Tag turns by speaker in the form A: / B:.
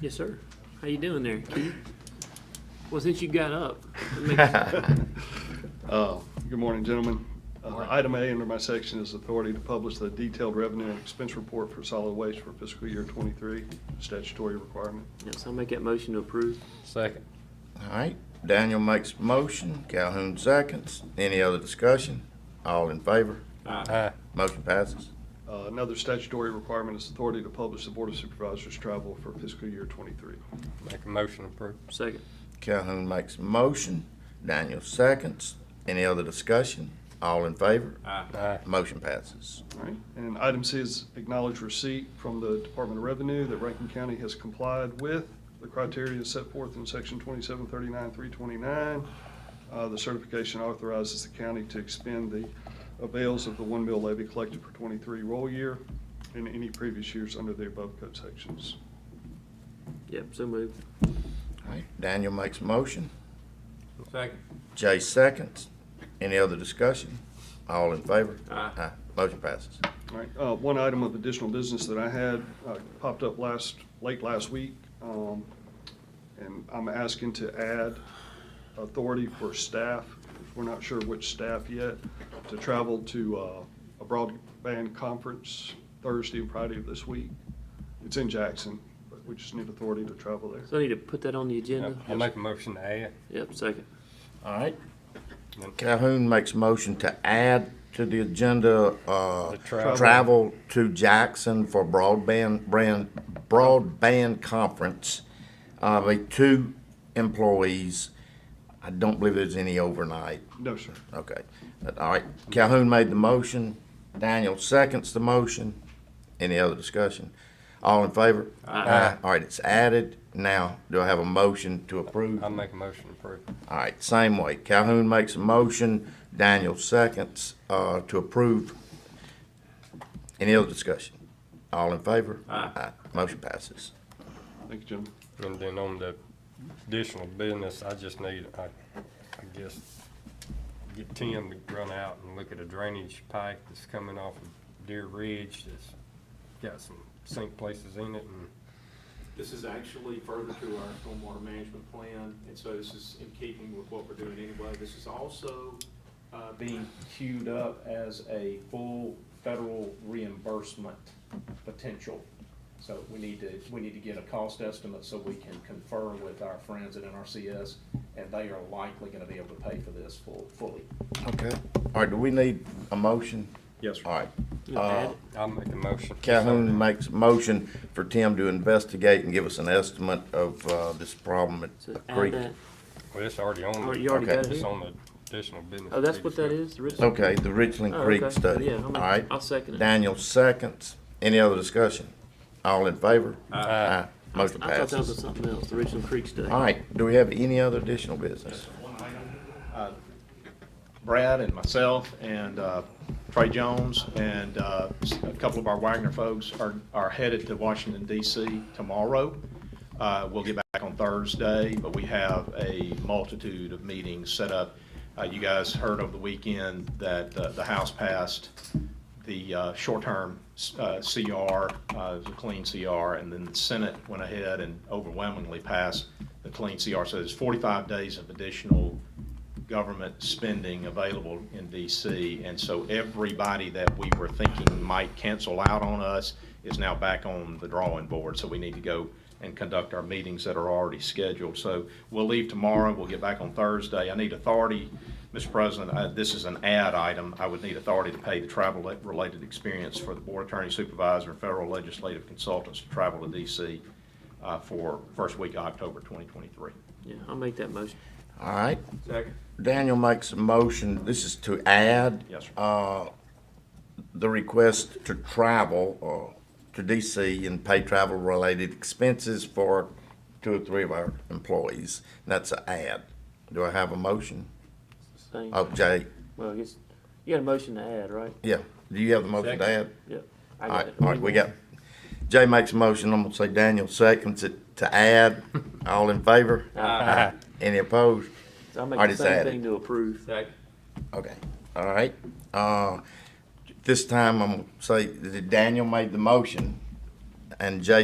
A: Yes, sir. How you doing there, Keith? Well, since you got up, it makes-
B: Uh, Good morning, gentlemen. Uh, Item A under my section is authority to publish the detailed revenue and expense report for solid waste for fiscal year '23, statutory requirement.
A: yes, I'll make that motion to approve.
C: Second.
D: All right, Daniel makes a motion, Calhoun seconds. Any other discussion? All in favor?
C: Aye.
D: Motion passes.
B: Uh, Another statutory requirement is authority to publish the Board of Supervisors travel for fiscal year '23.
C: Make a motion to approve.
A: Second.
D: Calhoun makes a motion, Daniel seconds. Any other discussion? All in favor?
C: Aye.
D: Motion passes.
B: All right, and item C is acknowledge receipt from the Department of Revenue that Rankin County has complied with the criteria set forth in section twenty-seven thirty-nine, three twenty-nine. Uh, the certification authorizes the county to expend the avails of the one mill levy collected for twenty-three roll year and any previous years under the above code sections.
A: Yep, so moved.
D: All right, Daniel makes a motion,
C: Second.
D: Jay seconds. Any other discussion? All in favor?
A: Aye.
D: Motion passes.
B: All right, uh, one item of additional business that I had uh, popped up last, late last week, um, and I'm asking to add authority for staff, we're not sure which staff yet, to travel to uh, a broadband conference Thursday and Friday of this week. It's in Jackson, but we just need authority to travel there.
A: So I need to put that on the agenda?
C: I'll make a motion to add.
A: Yep, second.
D: All right. Calhoun makes a motion to add to the agenda, uh,
C: The travel.
D: travel to Jackson for broadband, brand, broadband conference. Uh, with two employees. I don't believe there's any overnight.
B: No, sir.
D: Okay. But, All right. Calhoun made the motion. Daniel seconds the motion. Any other discussion? All in favor?
A: Aye.
D: All right, it's added. Now, do I have a motion to approve?
C: I'll make a motion to approve.
D: All right, same way. Calhoun makes a motion, Daniel seconds, uh, to approve. Any other discussion? All in favor?
A: Aye.
D: Motion passes.
B: Thank you, gentlemen.
C: And then on the additional business, I just need, I, I guess, get Tim to run out and look at a drainage pipe that's coming off of Deer Ridge that's got some sink places in it and
E: This is actually further to our stormwater management plan, and so this is in keeping with what we're doing anyway. This is also uh, being queued up as a full federal reimbursement potential. So we need to, we need to get a cost estimate so we can confer with our friends at NRCS, and they are likely gonna be able to pay for this full, fully.
D: Okay. All right, do we need a motion?
E: Yes, sir.
D: All right.
A: You know,
D: Uh,
A: add-
C: I'll make a motion.
D: Calhoun makes a motion for Tim to investigate and give us an estimate of, uh, this problem at
A: So
D: the
A: add
D: creek.
A: that.
C: Well, it's already on.
A: Oh,
C: the-
A: you already
D: Okay.
A: got it
C: It's
A: here?
C: on the additional business.
A: Oh, that's what that is, the original?
D: Okay, the Richland
A: Oh,
D: Creek
A: okay.
D: study.
A: Yeah, I'll
D: All
A: make-
D: right.
A: I'll second it.
D: Daniel seconds. Any other discussion? All in favor?
C: Aye.
D: Motion
A: I thought that was
D: passes.
A: something else, the original Creek study.
D: All right, do we have any other additional business?
E: Brad and myself and uh, Trey Jones and uh, a couple of our Wagner folks are, are headed to Washington DC tomorrow. Uh, We'll get back on Thursday, but we have a multitude of meetings set up. Uh, You guys heard over the weekend that uh, the House passed the uh, short-term uh, CR, uh, the clean CR, and then the Senate went ahead and overwhelmingly passed the clean CR. So there's 45 days of additional government spending available in DC. And so everybody that we were thinking might cancel out on us is now back on the drawing board. So we need to go and conduct our meetings that are already scheduled. So we'll leave tomorrow, we'll get back on Thursday. I need authority, Mr. President, uh, this is an ad item. I would need authority to pay the travel-related expense for the board attorney supervisor and federal legislative consultants to travel to DC uh, for first week of October 2023.
A: Yeah, I'll make that motion.
D: All right,
C: Second.
D: Daniel makes a motion, this is to add.
E: Yes, sir.
D: Uh, the request to travel, uh, to DC and pay travel-related expenses for two or three of our employees. That's an add. Do I have a motion?
A: Same.
D: Oh, Jay,
A: Well, I guess, you got a motion to add, right?
D: yeah, do you have the motion to add?
A: Yep. I
D: All
A: got
D: right,
A: it.
D: all right, we got, Jay makes a motion, I'm gonna say Daniel seconds it to add. All in favor?
A: Aye.
D: Any opposed?
A: So I'll make
D: All right,
A: the
D: it's
A: same
D: added.
A: thing to approve.
C: Second.
D: Okay, all right. Uh, This time I'm gonna say that Daniel made the motion and Jay